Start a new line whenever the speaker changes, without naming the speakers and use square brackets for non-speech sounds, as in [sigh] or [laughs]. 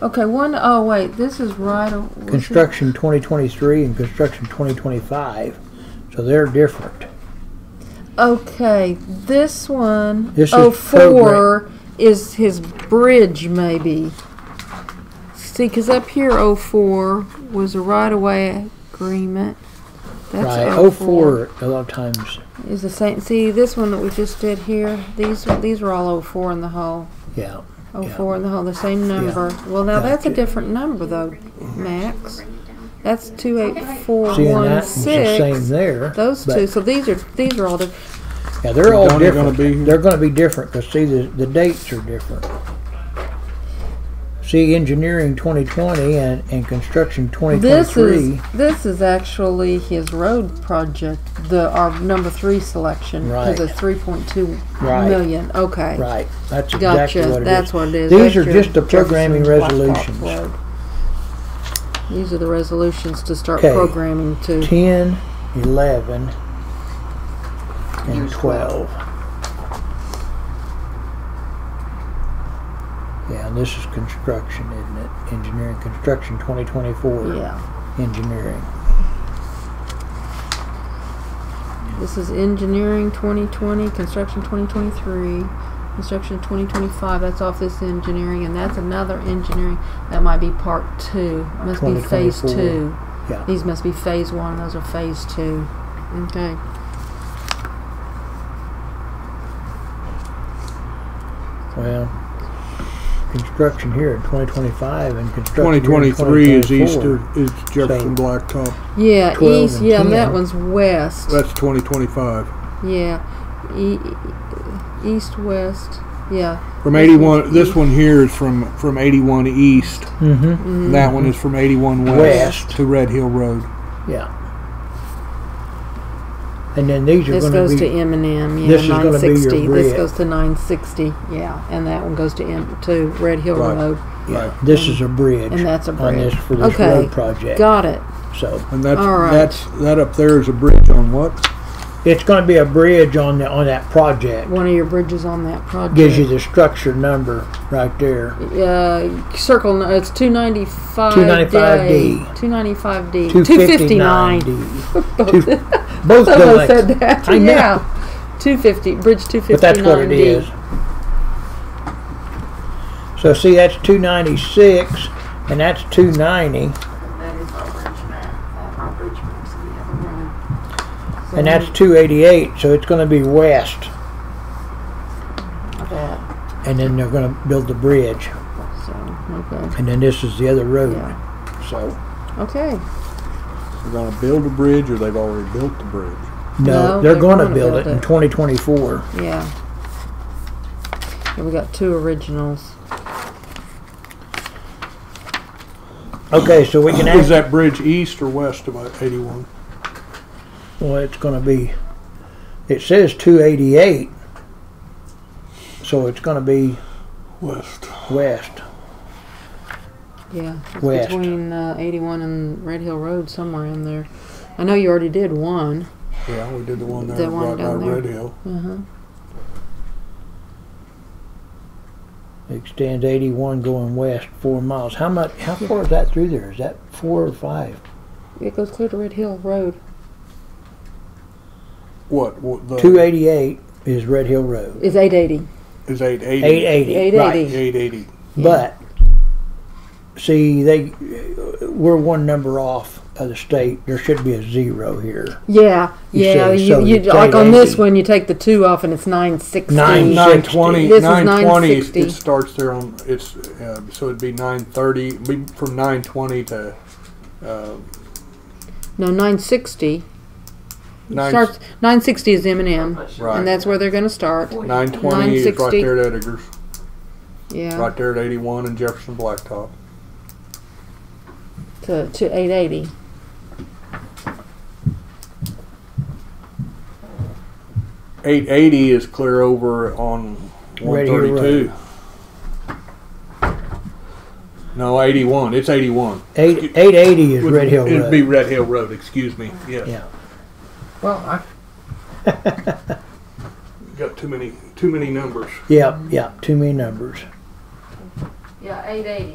Okay, one, oh, wait, this is right. o- what's it-
Construction 2023 and construction 2025, so they're different.
Okay, this one,
This is
oh, four is his bridge maybe. See, cause up here, oh, four was a right-of-way agreement. That's
Right,
oh,
04 a lot of times,
Is the same, see, this one that we just did here, these, these were all oh, four in the hole.
yeah.
Oh,
Yeah.
four in the hole, the same number. Well, now that's a
Gotcha.
different number though, Max. That's two eight four
Seeing that,
Oh, one
it's the same
six.
there.
Those
but-
two, so these are, these are all the,
Yeah, they're all
Donnie gonna
different.
be here?
They're gonna be different, cause see, the, the dates are different. See, engineering twenty twenty and, and construction twenty
this is,
twenty-three,
this is actually his road project, the, our number three selection.
Right.
Cause it's three point two
Right.
million, okay.
right, that's exactly
Gotcha,
what it
that's
is.
what it is.
These
That's
are
your
just the programming
Jefferson Blacktop
resolutions.
Road. These are the resolutions to start
Okay.
programming to.
Ten, eleven, and twelve. Yeah, and this is construction, isn't it? Engineering, construction twenty twenty-four.
Yeah.
Engineering,
This is engineering 2020, construction 2023, construction 2025. That's off this engineering, and that's another engineering. That might be part two. Must be phase
2024.
two.
yeah.
These must be phase one. Those are phase two. Okay.
Well, construction here in 2025 and construction here in
2023 is
2024.
Easter, is Jefferson Blacktop.
Yeah,
12
east.
and
Yeah, and that
10.
one's west.
That's 2025.
yeah, e- e- east west. Yeah.
From 81, this one here is from, from 81 east.
Mm-hmm.
That one is from 81 west
West.
to Red Hill Road.
Yeah. And then these are
This
going
goes
to
to
be
M and M. Yeah,
this is gonna be your
960. This
red.
goes to 960. Yeah, and that one goes to M to Red Hill
Right.
Road.
yeah, this is a bridge
And that's a
on
bridge.
this for this
Okay.
road project.
Got it.
So
And that's,
All right.
that's, that up there is a bridge on what?
it's going to be a bridge on the on that project.
One of your bridges on that project.
Gives you the structure number right there.
uh, circle. no, It's two ninety five.
295D.
Two ninety five D.
259D.
[laughs]
Two- Both
Someone said
collects,
that.
I know.
Yeah. Two fifty. Bridge two fifty nine D.
but that's what it is. So see, that's 296 and that's 290.
That is our bridge map, uh, that our bridge map's the other one.
And that's 288, so it's going to be west.
That,
And then they're going to build the bridge.
so okay.
And then this is the other road.
Yeah.
So,
Okay.
They're gonna build a bridge or they've already built the bridge.
No,
no, they're,
they're
going to
gonna
build,
build
it in
it.
2024.
Yeah. And we got two originals.
Okay, so we can act.
Is that bridge east or west of 81?
Well, it's going to be, it says 288. So it's going to be
West.
west.
Yeah. It's
West.
Between uh, eighty one and Red Hill Road, somewhere in there. I know you already did one.
Yeah, we did the one there
The one
right by
down there.
Red Hill.
Uh huh.
Extends 81 going west four miles. How much, how far is that through there? Is that four or five?
It goes clear to Red Hill Road.
What, what the?
288 is Red Hill Road.
It's 880.
Is 880?
880. right.
880.
880.
But see, they we're one number off of the state. There should be a zero here.
Yeah,
You
yeah.
say,
you,
so
you,
it's
like on this
880.
one, you take the two off, and it's 960.
Nine.
920,
This is
920,
960.
it starts there on, it's, uh, so it'd be 930, it'd be from 920 to, uh,
No, 960.
9,
Starts 960 is M and M,
Right.
and that's where they're going to start.
920 is right
960.
there at Edgar's,
Yeah,
right there at 81 and Jefferson Blacktop.
to, to 880.
Eight eighty is clear over on one
Right here,
thirty two. No, eighty one. It's eighty one.
Eight eight eighty is Red Hill
It'd be
Road.
Red Hill Road. Excuse me. Yes.
Yeah.
Well, I.
Got too many too many numbers.
Yeah, yeah. Too many numbers.
Yeah, 880.